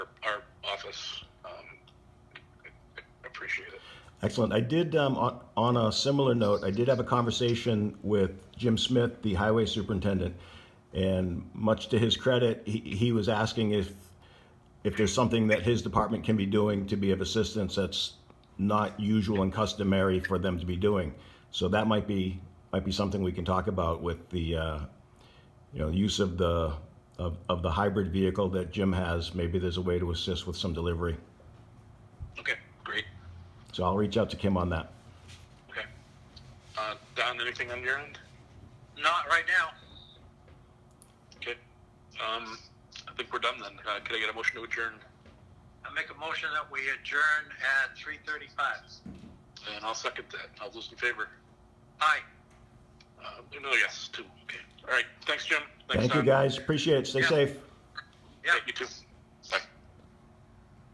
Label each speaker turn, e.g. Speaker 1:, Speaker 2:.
Speaker 1: us. Um, appreciate it.
Speaker 2: Excellent. I did, um, on, on a similar note, I did have a conversation with Jim Smith, the highway superintendent. And much to his credit, he, he was asking if, if there's something that his department can be doing to be of assistance that's not usual and customary for them to be doing. So that might be, might be something we can talk about with the, uh, you know, use of the, of, of the hybrid vehicle that Jim has. Maybe there's a way to assist with some delivery.
Speaker 1: Okay, great.
Speaker 2: So I'll reach out to Kim on that.
Speaker 1: Okay. Uh, Don, anything on your end?
Speaker 3: Not right now.
Speaker 1: Okay. Um, I think we're done then. Uh, could I get a motion to adjourn?
Speaker 3: I make a motion that we adjourn at three thirty-five.
Speaker 1: And I'll second that. All those in favor?
Speaker 3: Aye.
Speaker 1: Uh, no, yes, two. Okay. All right. Thanks, Jim. Thanks,
Speaker 2: Thank you,
Speaker 1: Don.
Speaker 2: guys. Appreciate it. Stay
Speaker 3: Yeah.
Speaker 2: safe.
Speaker 3: Yeah.
Speaker 1: Yeah, you too.